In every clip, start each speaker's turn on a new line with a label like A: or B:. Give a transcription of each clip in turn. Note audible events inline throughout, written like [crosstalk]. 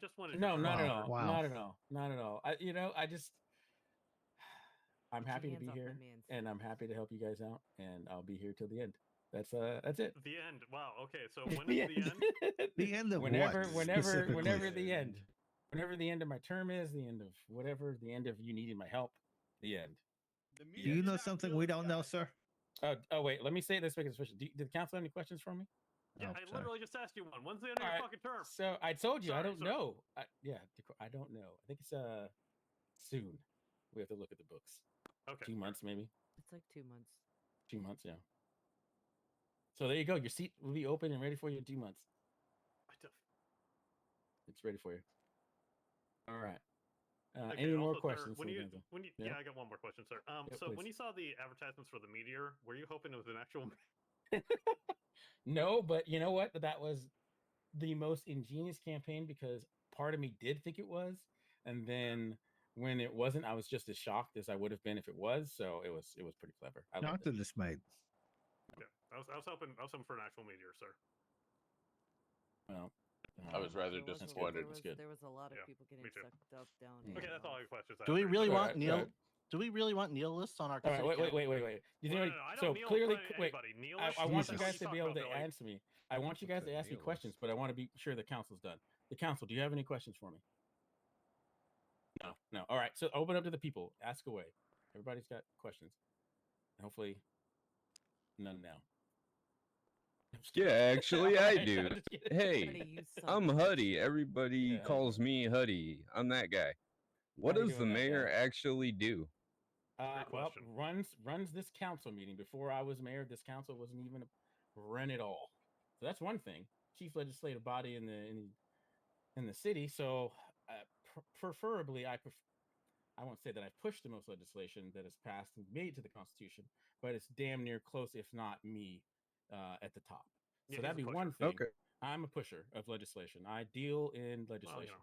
A: just wanted.
B: No,
A: to
B: not at
C: Wow.
B: all.
C: Wow.
B: Not at all. Not at all. I, you know, I just, [sighs] I'm
D: Get your
B: happy to
D: hands
B: be
D: off my
B: here,
D: mans.
B: and I'm happy to help you guys out, and I'll be here till the end. That's uh, that's it.
A: The end. Wow. Okay.
B: [laughs]
A: So when is the
C: [laughs]
A: end?
C: The end of
B: whenever,
C: what?
B: whenever,
C: specifically?
B: whenever the end, whenever the end of my term is, the end of whatever, the end of you needing my help, the end.
E: The
C: Do
E: media
C: you know
E: did not
C: something
E: build
C: we don't
E: that.
C: know, sir?
B: Oh, oh wait, let me say this because do, did the council have any questions for me?
A: Yeah,
C: Oh,
A: I
C: sorry.
A: literally just asked you one. When's the end of your
B: Alright,
A: fucking term?
B: So I told you I
A: Sorry,
B: don't
A: sorry.
B: know. I, yeah, the qu- I don't know. I think it's uh soon. We have to look at the books.
A: Okay.
B: Two months maybe.
D: It's like two months.
B: Two months, yeah. So there you go. Your seat will be open and ready for you in two months.
A: What the f-
B: It's ready for you. All right. Uh,
A: Okay,
B: any more
A: also, sir,
B: questions?
A: When
B: for
A: you,
B: Lorenzo?
A: when you,
B: Yeah?
A: yeah? I got one more question, sir. Um,
B: Yeah,
A: so
B: please.
A: when you saw the advertisements for the meteor, were you hoping it was an actual?
B: No, but you know what? That was the most ingenious campaign because part of me did think it was, and then when it wasn't, I was just as shocked as I would have been if it was. So it was it was pretty clever. I liked
C: Doctor
B: it.
C: dismayed.
A: Yeah, I was, I was hoping, I was hoping for an actual meteor, sir.
B: Well,
F: I was
B: um,
F: rather
D: There was a-
F: disappointed.
D: There was,
B: It's good.
D: there was a lot of
A: Yeah,
D: people getting
A: me too.
D: sucked up down.
B: Yeah.
A: Okay,
D: down
A: that's all
D: off.
A: your questions. I
G: Do we
A: have.
G: really
B: Sorry,
G: want
B: sorry.
G: Neil? Do we really want Neil lists on our?
B: All
G: city
B: right, wait, wait,
G: council?
B: wait, wait, wait. You
A: No,
B: know,
A: no, no, I don't
B: so
A: kneel
B: clearly,
A: in front of
B: cl- wait.
A: anybody. Kneel
B: I,
A: is-
B: I want you
A: What
C: Jesus.
A: are
B: guys to
A: talking
B: be able
A: about,
B: to
A: Billy?
B: answer me. I want you
H: What
B: guys
H: the
B: to ask me
H: deal is?
B: questions, but I want to be sure the council's done. The council, do you have any questions for me? No, no. All right, so open up to the people. Ask away. Everybody's got questions. And hopefully, none now. [laughs]
H: Yeah, actually,
B: I'm
H: I
B: just
H: do.
B: kidding.
D: Huddy,
H: Hey,
D: you
B: [laughs]
D: son
H: I'm
D: of a-
H: Huddy. Everybody
B: Yeah.
H: calls me Huddy. I'm that guy. What
B: How you
H: does the
B: doing, that
H: mayor
B: guy?
H: actually do?
B: Uh,
A: Great
B: well,
A: question.
B: runs runs this council meeting. Before I was mayor, this council wasn't even run at all. So that's one thing. Chief legislative body in the in the, in the city. So uh, pr- preferably, I pref- I won't say that I've pushed the most legislation that has passed and made to the Constitution, but it's damn near close, if not me, uh, at the top.
A: Yeah,
B: so
A: he's
B: that'd
A: a
B: be
A: pusher.
B: one thing. I'm a pusher of legislation. I deal in
A: Well, you
B: legislation.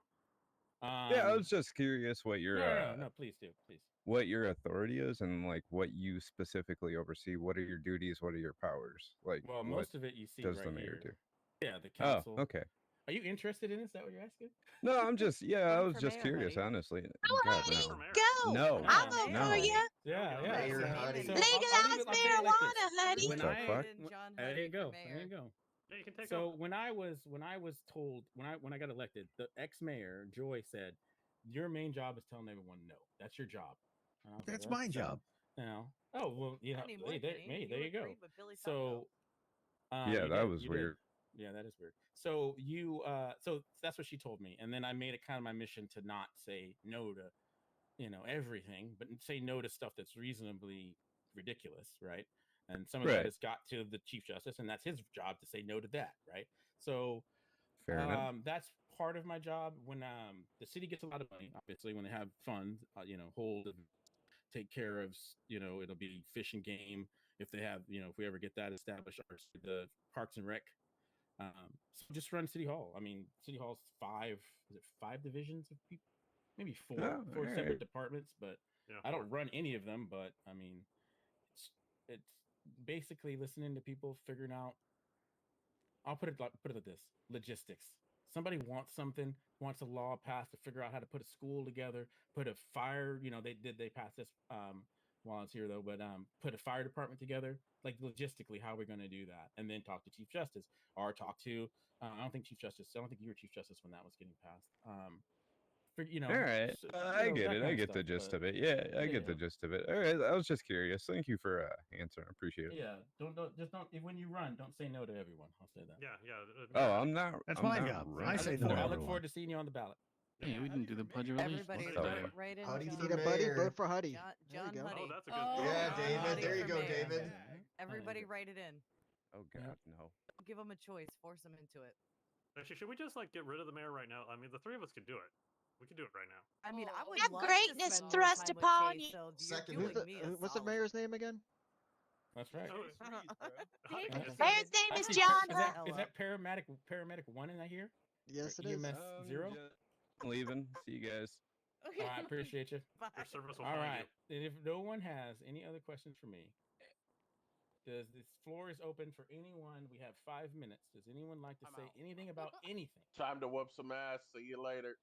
A: know.
H: yeah, I
B: Um,
H: was just curious what
B: no,
H: your
B: no,
H: uh,
B: no, no, please do, please.
H: what your authority is and like what you specifically oversee. What are your duties? What are your powers? Like
B: Well,
H: what
B: most of it you see
H: does
B: right
H: the mayor
B: here.
H: do?
B: Yeah, the
H: Oh,
B: council.
H: okay.
B: Are you interested in? Is that what you're asking?
H: No, I'm just yeah. I
D: Run
H: was
D: for
H: just
D: mayor,
H: curious,
D: buddy.
H: honestly.
I: No,
H: God,
I: Huddy,
A: For
H: no.
A: mayor?
I: go.
H: No,
I: I'll
B: No,
I: vote
H: no.
I: for you.
B: Yeah,
A: go.
B: yeah.
C: Mayor
B: so-
C: Huddy.
B: so I'll- I'll leave
I: Legalize
B: it- I'll say it like
I: marijuana,
B: this.
I: Huddy.
H: What
B: When
H: the
B: I,
H: fuck?
D: And John
B: there
D: Huddy
B: you
D: for
B: go, there
D: mayor.
B: you go.
A: Yeah, you can take
B: So
A: over.
B: when I was when I was told when I when I got elected, the ex-mayor Joy said, "Your main job is telling everyone no. That's your job." And I was like,
C: That's
B: "Well,
C: my
B: so-"
C: job.
B: You know? Oh well, you know,
D: Not anymore,
B: hey, there,
D: Kenny.
B: hey, there you go.
D: agreed with Billy Falco.
B: So, uh,
H: Yeah,
B: you
H: that
B: did-
H: was
B: you did.
H: weird.
B: Yeah, that is weird. So you, uh, so that's what she told me, and then I made it kind of my mission to not say no to, you know, everything, but say no to stuff that's reasonably ridiculous, right? And some of that
H: Right.
B: has got to the chief justice, and that's his job to say no to that, right? So
H: Fair enough.
B: um, that's part of my job. When um, the city gets a lot of money, obviously, when they have funds, uh, you know, hold and take care of, s- you know, it'll be fish and game. If they have, you know, if we ever get that established, or s- the parks and rec. Um, so just run city hall. I mean, city hall's five, is it five divisions of people? Maybe four,
H: Oh,
B: four separate
H: alright.
B: departments, but
A: Yeah.
B: I don't run any of them, but I mean, it's it's basically listening to people, figuring out. I'll put it like put it like this: logistics. Somebody wants something, wants a law passed to figure out how to put a school together, put a fire. You know, they did they pass this um, while it's here though, but um, put a fire department together. Like logistically, how are we going to do that? And then talk to Chief Justice or talk to. Uh, I don't think Chief Justice. I don't think you were Chief Justice when that was getting passed. Um, for, you know, [laughs]
H: All right.
B: s-
H: Uh,
B: you
H: I
B: know,
H: get
B: that
H: it.
B: kind
H: I
B: of
H: get the
B: stuff,
H: gist
B: but-
H: of it. Yeah, I
B: yeah,
H: get the
B: yeah.
H: gist of it. All right. I was just curious. Thank you for uh, answering. I appreciate it.
B: Yeah, don't don't just don't if- when you run, don't say no to everyone. I'll say that.
A: yeah, yeah. uh,
H: Oh, I'm not.
C: That's
H: I'm
C: my
H: not
C: job. I
H: running.
C: say
B: look
C: no
B: forward-
C: to
B: I look
C: everyone.
B: forward to seeing you on the ballot.
E: Yeah,
G: Yeah, we didn't do the pledge of allegiance.
D: Everybody,
G: Let's
A: vote
G: do it.
A: for-
D: vote right in.
C: Huddy
D: John
C: for
D: Huddy.
C: mayor. Vote
I: for Huddy.
D: John, John
I: go.
D: Huddy.
A: Oh, that's a good.
D: Oh,
C: Yeah,
D: John
C: David,
D: Huddy
C: there you
D: for
C: go,
D: mayor.
C: David.
D: Everybody write it in.
H: Oh
B: Yeah.
H: God, no.
D: Give them a choice. Force them into it.
A: Actually, should we just like get rid of the mayor right now? I mean, the three of us could do it. We could do it right now.
D: I mean, I
G: Oh,
D: would
I: Have
D: love to
I: greatness
D: spend more
I: thrust
D: time with
I: upon
D: Jay
I: you.
D: Seld. You're
E: Second.
I: Who's
D: doing
I: the,
D: me a
I: who- what's the
D: solid.
I: mayor's name again?
B: That's right.
A: Oh,
E: Jeez,
A: [laughs]
E: bro.
A: Huddy
B: Mayor's
A: just said-
I: Mayor's name is
B: Actually,
I: John
B: Is that,
I: Huddy.
B: is that paramedic paramedic one in that
C: [laughs]
B: here?
I: Yes, it is.
B: EMS uh-huh. zero.
H: I'm leaving. See you guys.
D: Okay,
B: Oh, I appreciate you.
D: bye.
A: Your service will
B: All
A: find
B: right.
A: you.
B: And if no one has any other questions for me, Does this floor is open for anyone? We have five minutes. Does anyone like to
J: I'm
B: say
J: out.
B: anything about anything?
K: Time to whoop some ass. See you later.